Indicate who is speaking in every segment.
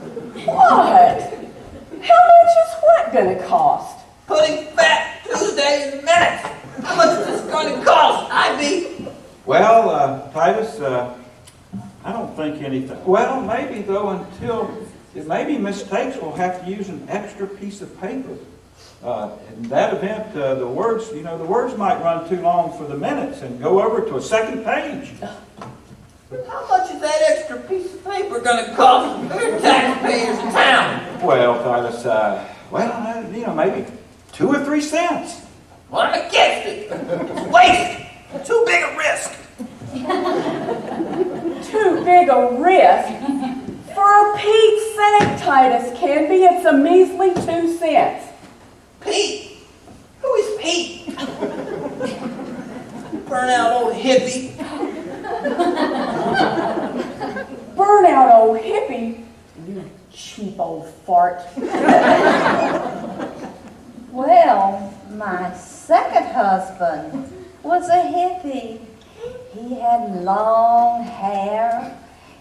Speaker 1: What? How much is what gonna cost?
Speaker 2: Putting fat Tuesdays in minutes. How much is this going to cost, Ivy?
Speaker 3: Well, uh, Titus, uh, I don't think anything, well, maybe though until, maybe mistakes will have to use an extra piece of paper. Uh, in that event, uh, the words, you know, the words might run too long for the minutes and go over to a second page.
Speaker 2: How much is that extra piece of paper going to cost your taxpayers in town?
Speaker 3: Well, Titus, uh, well, I don't know, you know, maybe two or three cents.
Speaker 2: Well, I'm against it. It's wasted. Too big a risk.
Speaker 1: Too big a risk. For a Pete's sake, Titus Canby, it's a measly two cents.
Speaker 2: Pete? Who is Pete? Burnout old hippie.
Speaker 1: Burnout old hippie, you cheap old fart.
Speaker 4: Well, my second husband was a hippie. He had long hair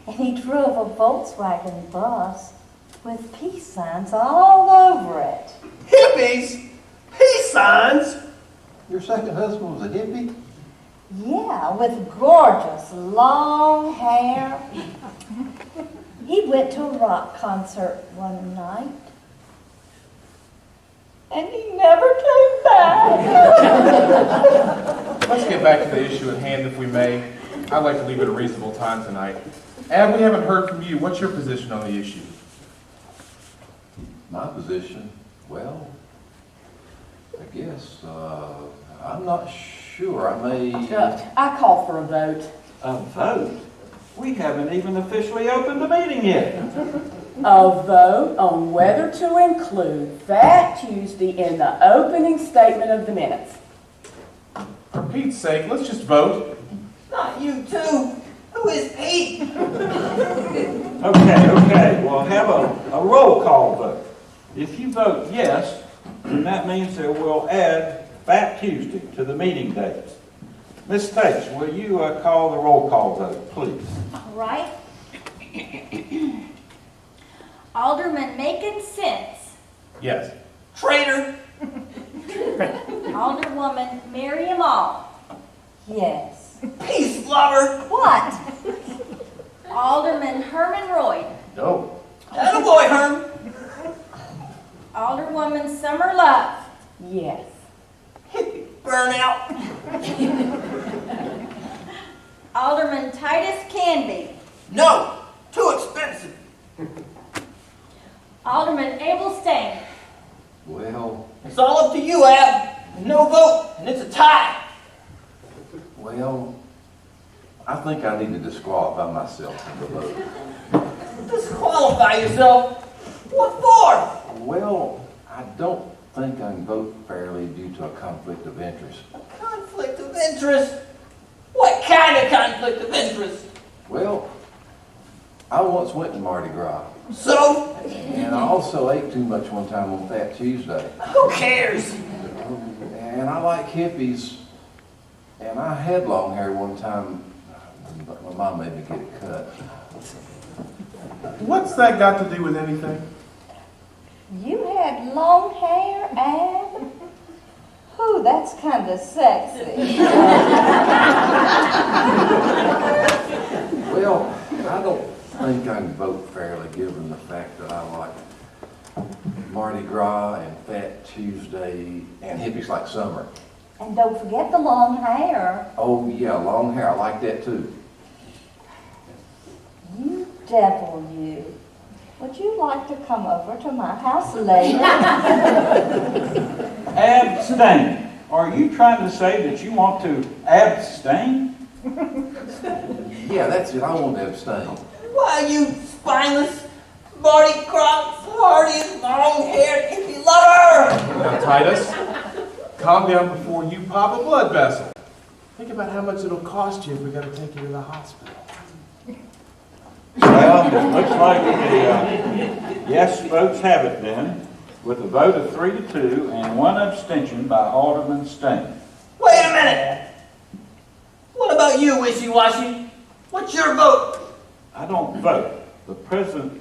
Speaker 4: and he drove a Volkswagen bus with peace signs all over it.
Speaker 2: Hippies? Peace signs?
Speaker 5: Your second husband was a hippie?
Speaker 4: Yeah, with gorgeous long hair. He went to a rock concert one night and he never came back.
Speaker 6: Let's get back to the issue at hand, if we may. I'd like to leave it a reasonable time tonight. Ab, we haven't heard from you. What's your position on the issue?
Speaker 5: My position, well, I guess, uh, I'm not sure, I may,
Speaker 1: Uh, I call for a vote.
Speaker 3: A vote? We haven't even officially opened the meeting yet.
Speaker 1: A vote on whether to include that Tuesday in the opening statement of the minutes.
Speaker 6: For Pete's sake, let's just vote.
Speaker 2: Not you too. Who is Pete?
Speaker 3: Okay, okay, we'll have a, a roll call vote. If you vote yes, then that means that we'll add Fat Tuesday to the meeting dates. Ms. States, will you uh, call the roll call vote, please?
Speaker 7: All right. Alderman making sense.
Speaker 6: Yes.
Speaker 2: Traitor.
Speaker 7: Alderwoman Miriam All.
Speaker 4: Yes.
Speaker 2: Peace lover.
Speaker 4: What?
Speaker 7: Alderman Herman Royd.
Speaker 6: No.
Speaker 2: That boy, Herm.
Speaker 7: Alderwoman Summer Love.
Speaker 1: Yes.
Speaker 2: Burnout.
Speaker 7: Alderman Titus Canby.
Speaker 2: No. Too expensive.
Speaker 7: Alderman Abel Stain.
Speaker 5: well,
Speaker 2: It's all up to you, Ab. No vote, and it's a tie.
Speaker 5: well, I think I need to disqualify myself from the vote.
Speaker 2: Disqualify yourself. What for?
Speaker 5: Well, I don't think I can vote fairly due to a conflict of interest.
Speaker 2: Conflict of interest. What kind of conflict of interest?
Speaker 5: Well, I once went to Mardi Gras,
Speaker 2: So,
Speaker 5: and I also ate too much one time on Fat Tuesday.
Speaker 2: who cares?
Speaker 5: And I like hippies, and I had long hair one time, but my mom made me get it cut.
Speaker 6: What's that got to do with anything?
Speaker 4: You had long hair, Anne? Whew, that's kind of sexy.
Speaker 5: Well, I don't think I can vote fairly, given the fact that I like Mardi Gras and Fat Tuesday and hippies like summer.
Speaker 4: And don't forget the long hair.
Speaker 5: Oh, yeah, long hair, I like that too.
Speaker 4: You devil, you. Would you like to come over to my house later?
Speaker 3: Abstain. Are you trying to say that you want to abstain?
Speaker 5: Yeah, that's it, I want to abstain.
Speaker 2: Why, you spineless, Marty Croc, hardy, long-haired hippie lover!
Speaker 6: Now, Titus, calm down before you pop a blood vessel. Think about how much it'll cost you if we gotta take you to the hospital.
Speaker 3: Well, it looks like the, uh, yes votes have it then, with a vote of three to two and one abstention by Alderman Stain.
Speaker 2: Wait a minute! What about you, wishy-washy? What's your vote?
Speaker 3: I don't vote. The president